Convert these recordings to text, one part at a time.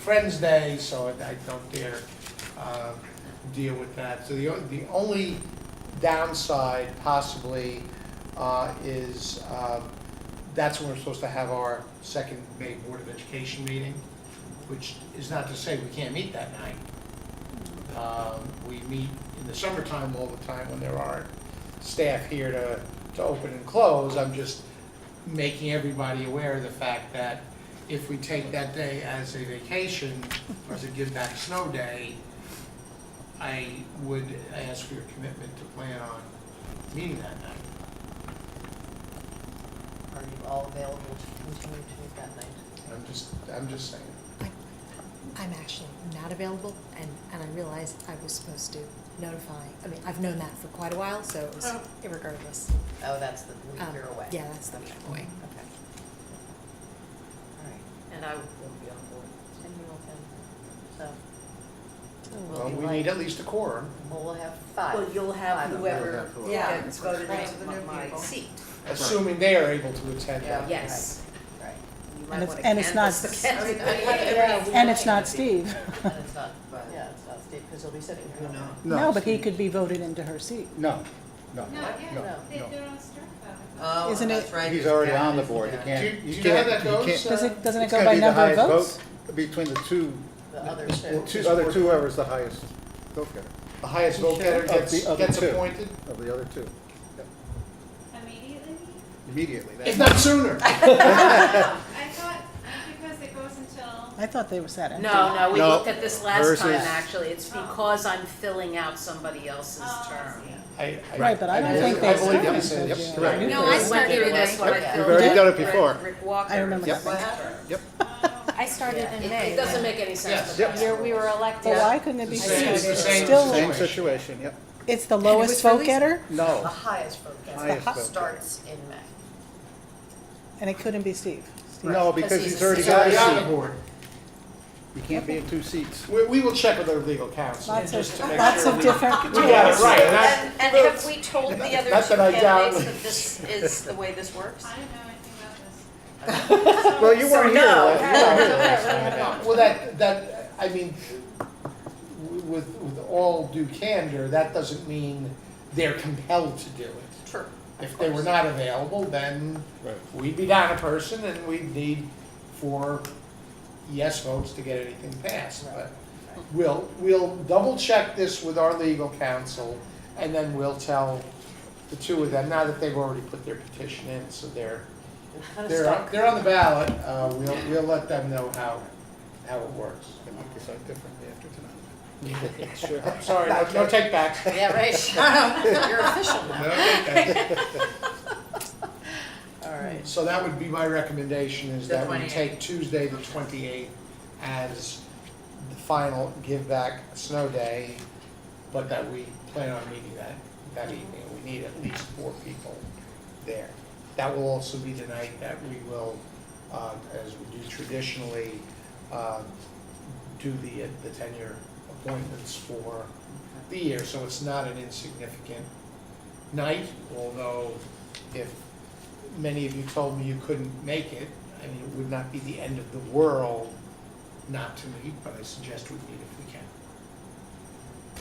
Friends Day, so I I don't dare uh, deal with that. So the, o- the only downside possibly uh, is um, that's when we're supposed to have our second May Board of Education meeting, which is not to say we can't meet that night. Um, We meet in the summertime all the time when there aren't staff here to, to open and close. I'm just making everybody aware of the fact that if we take that day as a vacation, or as a give back snow day, I would ask for your commitment to plan on meeting that night. Are you all available to continue to meet that night? I'm just, I'm just saying. I'm actually not available, and, and I realized I was supposed to notify, I mean, I've known that for quite a while, so it was Oh. irregardless. Oh, that's the week Um, you're away. Yeah, that's the Okay. way. Okay. All right. And I won't be on board. And you won't be on board. We'll Well, be we late. need at least a quorum. So, well, we'll have five. Well, you'll have Five of whoever them. Yeah, Yeah. gets voted Right. into the new My- people. seat. assuming they are able to attend that. Yeah. Yes. Right. You And might if- wanna and it's not- canvass the candidates. And it's not Steve. And it's not, But- yeah, it's not Steve, because he'll be sitting here. No, but he could be voted into her seat. No, no, No, No, yeah, they, no. they're on strike Uh. vote. Oh, Isn't that's it- right. he's already on the Yeah, board, he yeah. can't, Do you- you do you know how can't, that you goes? can't. Uh, Does it, doesn't it It's go gotta by be the number of highest votes? vote Between the two, The other the two. two, other two, whoever's the highest vote getter The highest vote getter Of the gets, other gets two. appointed, of the other two, Immediately? immediately. if not sooner. I thought, because it goes until, I thought they were set empty. No, no, we No. looked at this last Hers time, is- actually. It's because I'm filling out somebody else's oh, I term. see. I- Right, but I don't believe- think I they believe started you until said- Yep, June. correct. You No, went I through started this in when I May. Yep, filled we've already out done it Rick- before. Rick Walker's I remember Yep. What term. happened? Yep, Oh. I started It- It doesn't make any sense. Yes. to us. Yep. we were elected. But why couldn't it be It's sooner? the It's same- still, same situation, yep, it's the it lowest was vote released- getter, The no, highest vote Highest vote getter getter. starts in May. and it couldn't be Steve. no, Because because he's he's already He's got already on the a seat, board. he can't be in two seats. We, we will check with our legal counsel, Lots just of, to make lots sure of we- different. We got it right, and I- And, and have we told the other Not two that I doubt. candidates that this is the way this works? I don't know anything about this. Well, you So weren't here, no. Oh, last- you weren't here last time I doubt. Well, that, that, I mean, with, with all due candor, that doesn't mean they're compelled to do it. True. If they were not available, then Right. we'd be down a person and we'd need four yes votes to get anything passed. But we'll, we'll double check this with our legal counsel and then we'll tell the two of them, now that they've already put their petition in, so they're, We're kind of they're, on- stuck. they're on the ballot, uh, we'll, we'll let them know how, how it works. They might decide differently after tonight. Sure. Sorry, no, no take backs. Yeah, right, shut up, you're official No now. take backs. All right. So that would be my recommendation, is The that we 28th. take Tuesday, the twenty-eighth, as the final give back snow day, but that we plan on meeting that, that Mm-hmm. evening. We need at least four people there. That will also be the night that we will, uh, as we do traditionally, uh, do the, the tenure appointments for the year. So it's not an insignificant night, although if many of you told me you couldn't make it, I mean, it would not be the end of the world not to meet, but I suggest we meet if we can.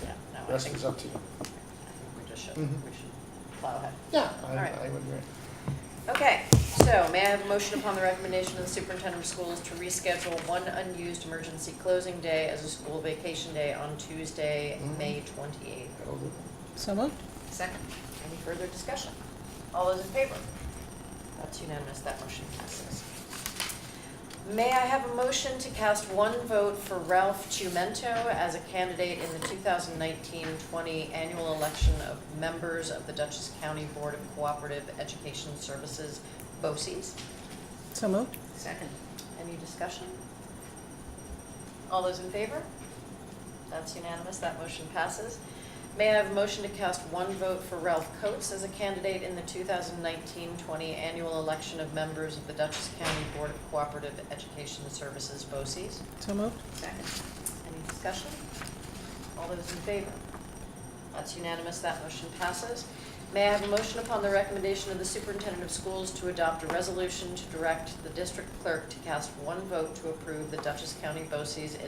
Yeah, no, I Rest think, is up to you. I think we just should, we Mhm. should plow ahead. Yeah, All right. I, I would agree. Okay, so may I have a motion upon the recommendation of the superintendent of schools to reschedule one unused emergency closing day as a school vacation day on Tuesday, Mm-hmm. May twenty-eighth? So moved. Second. Any further discussion? All those in favor? That's unanimous, that motion passes. May I have a motion to cast one vote for Ralph Chumento as a candidate in the 2019-20 annual election of members of the Dutchess County Board of Cooperative Education Services, BOCES? So moved. Second. Any discussion? All those in favor? That's unanimous, that motion passes. May I have a motion to cast one vote for Ralph Coates as a candidate in the 2019-20 annual election of members of the Dutchess County Board of Cooperative Education Services, BOCES? So moved. Second. Any discussion? All those in favor? That's unanimous, that motion passes. May I have a motion upon the recommendation of the superintendent of schools to adopt a resolution to direct the district clerk to cast one vote to approve the Dutchess County BOCES